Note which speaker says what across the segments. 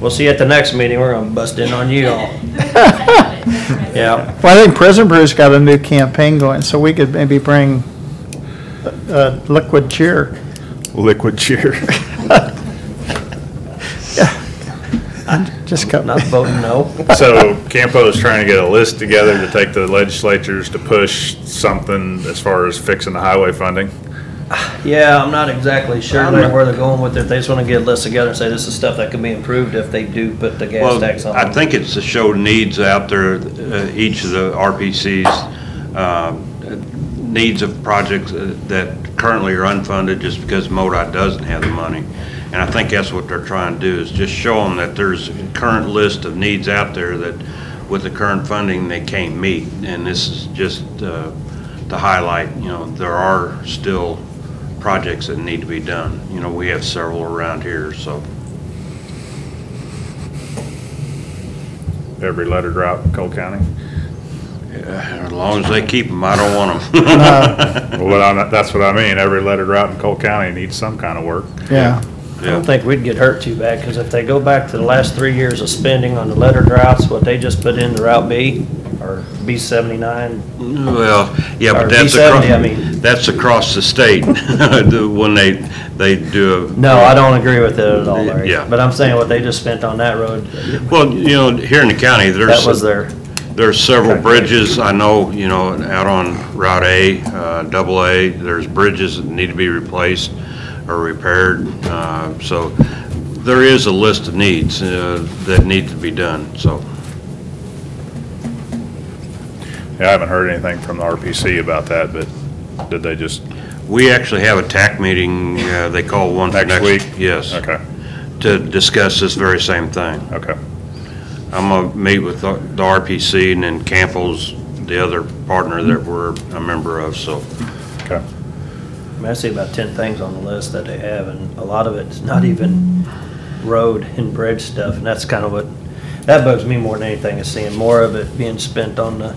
Speaker 1: We'll see you at the next meeting, we're gonna bust in on you all. Yeah,
Speaker 2: Well, I think Prison Brew's got a new campaign going, so we could maybe bring uh, liquid cheer.
Speaker 3: Liquid cheer.
Speaker 2: Just got,
Speaker 1: not voting no.
Speaker 3: So Campo is trying to get a list together to take to the legislatures to push something as far as fixing the highway funding.
Speaker 1: Yeah, I'm not exactly sure like where they're going with it. They just wanna get lists together and say this is stuff that can be improved if they do put the gas
Speaker 4: Well,
Speaker 1: tax on.
Speaker 4: I think it's to show needs out there, uh, each of the RPCs, um, needs of projects uh, that currently are unfunded just because MoDOT doesn't have the money. And I think that's what they're trying to do, is just show them that there's a current list of needs out there that with the current funding, they can't meet. And this is just uh, to highlight, you know, there are still projects that need to be done. You know, we have several around here, so.
Speaker 3: Every letter drop, in Cole County.
Speaker 4: Yeah, As long as they keep them, I don't want them.
Speaker 3: Well, what I'm, that's what I mean. Every letter drop in Cole County needs some kind of work.
Speaker 2: yeah.
Speaker 1: I don't think we'd get hurt too bad, because if they go back to the last three years of spending on the letter droughts, what they just put in the Route B, or B seventy-nine,
Speaker 4: Well, yeah,
Speaker 1: Or
Speaker 4: but that's
Speaker 1: B70, I mean.
Speaker 4: across, that's across the state, the- when they, they do. a-
Speaker 1: No, I don't agree with it at all, Larry.
Speaker 4: Yeah.
Speaker 1: But I'm saying what they just spent on that road,
Speaker 4: Well, you know, here in the county,
Speaker 1: that was
Speaker 4: there's,
Speaker 1: their,
Speaker 4: there's several bridges, I know, you know, out on Route A, uh, Double A, there's bridges that need to be replaced or repaired, uh, so there is a list of needs uh, that need to be done, so.
Speaker 3: Yeah, I haven't heard anything from the RPC about that, but did they just,
Speaker 4: We actually have a TAC meeting, uh, they call one for
Speaker 3: Next
Speaker 4: next.
Speaker 3: week?
Speaker 4: Yes.
Speaker 3: okay,
Speaker 4: to discuss this very same thing.
Speaker 3: okay.
Speaker 4: I'm gonna meet with the the RPC and then Campbell's, the other partner that we're a member of, so.
Speaker 3: Okay.
Speaker 1: I mean, I see about ten things on the list that they have, and a lot of it's not even road and bridge stuff, and that's kind of what, that bugs me more than anything, is seeing more of it being spent on the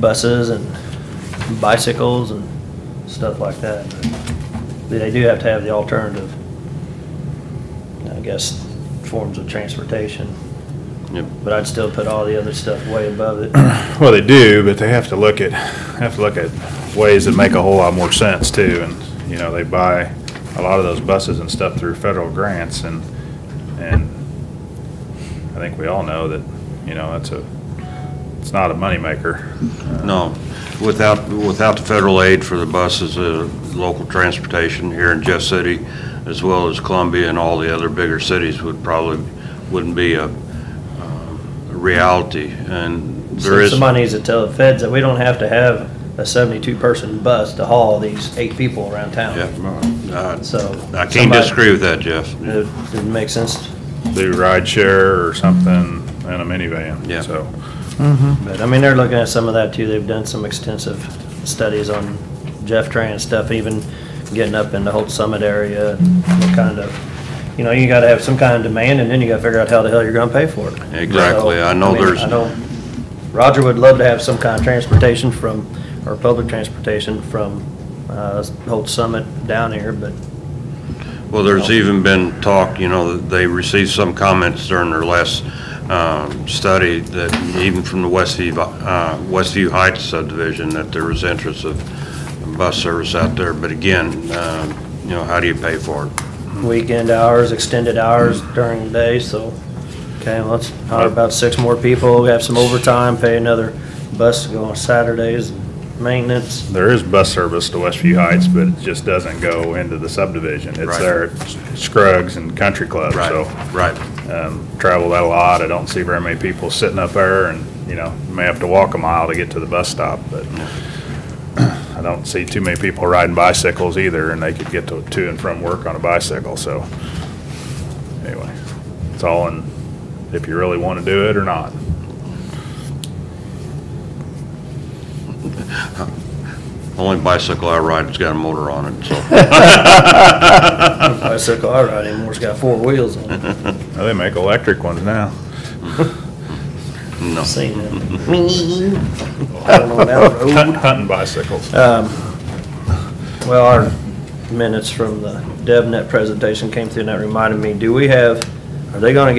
Speaker 1: buses and bicycles and stuff like that. But They do have to have the alternative, I guess, forms of transportation,
Speaker 4: Yep.
Speaker 1: but I'd still put all the other stuff way above it.
Speaker 3: Well, they do, but they have to look at, have to look at ways that make a whole lot more sense too. And, you know, they buy a lot of those buses and stuff through federal grants and, and I think we all know that, you know, that's a, it's not a moneymaker.
Speaker 4: No, without, without the federal aid for the buses, uh, local transportation here in Jeff City, as well as Columbia and all the other bigger cities would probably, wouldn't be a, um, a reality. And there
Speaker 1: So
Speaker 4: is,
Speaker 1: Somebody needs to tell the feds that we don't have to have a seventy-two person bus to haul these eight people around
Speaker 4: yeah,
Speaker 1: town.
Speaker 4: uh,
Speaker 1: So.
Speaker 4: I can't
Speaker 1: somebody-
Speaker 4: disagree with that, Jeff.
Speaker 1: It it makes sense,
Speaker 3: Do ride share or something in a minivan.
Speaker 4: Yeah.
Speaker 3: So,
Speaker 1: but I mean, they're looking at some of that too. They've done some extensive studies on Jeff Tran stuff, even getting up in the whole summit area, what kind of, you know, you gotta have some kind of demand and then you gotta figure out how the hell you're gonna pay for it.
Speaker 4: Exactly.
Speaker 1: So,
Speaker 4: I know
Speaker 1: mean,
Speaker 4: there's-
Speaker 1: I know Roger would love to have some kind of transportation from, or public transportation from, uh, Holt Summit down here, but
Speaker 4: Well, there's even been talk, you know, that they received some comments during their last um, study that even from the Westview, uh, Westview Heights subdivision, that there was interest of bus service out there. But again, um, you know, how do you pay for it?
Speaker 1: weekend hours, extended hours during the day, so, okay, well, let's hire about six more people, we have some overtime, pay another bus to go on Saturdays, maintenance.
Speaker 3: There is bus service to Westview Heights, but it just doesn't go into the subdivision. It's
Speaker 4: Right.
Speaker 3: there at Scruggs and Country Club, so.
Speaker 4: Right.
Speaker 3: um, travel that a lot. I don't see very many people sitting up there and, you know, you may have to walk a mile to get to the bus stop, but I don't see too many people riding bicycles either, and they could get to, to and from work on a bicycle, so. Anyway, it's all in, if you really want to do it or not.
Speaker 4: Only bicycle I ride has got a motor on it, so.
Speaker 1: Bicycle I ride anymore, it's got four wheels on it,
Speaker 3: Now, They make electric ones now.
Speaker 1: I've seen them. Going on down the road.
Speaker 3: Hunt- Hunting bicycles.
Speaker 1: Well, our minutes from the DevNet presentation came through and that reminded me, do we have, are they gonna get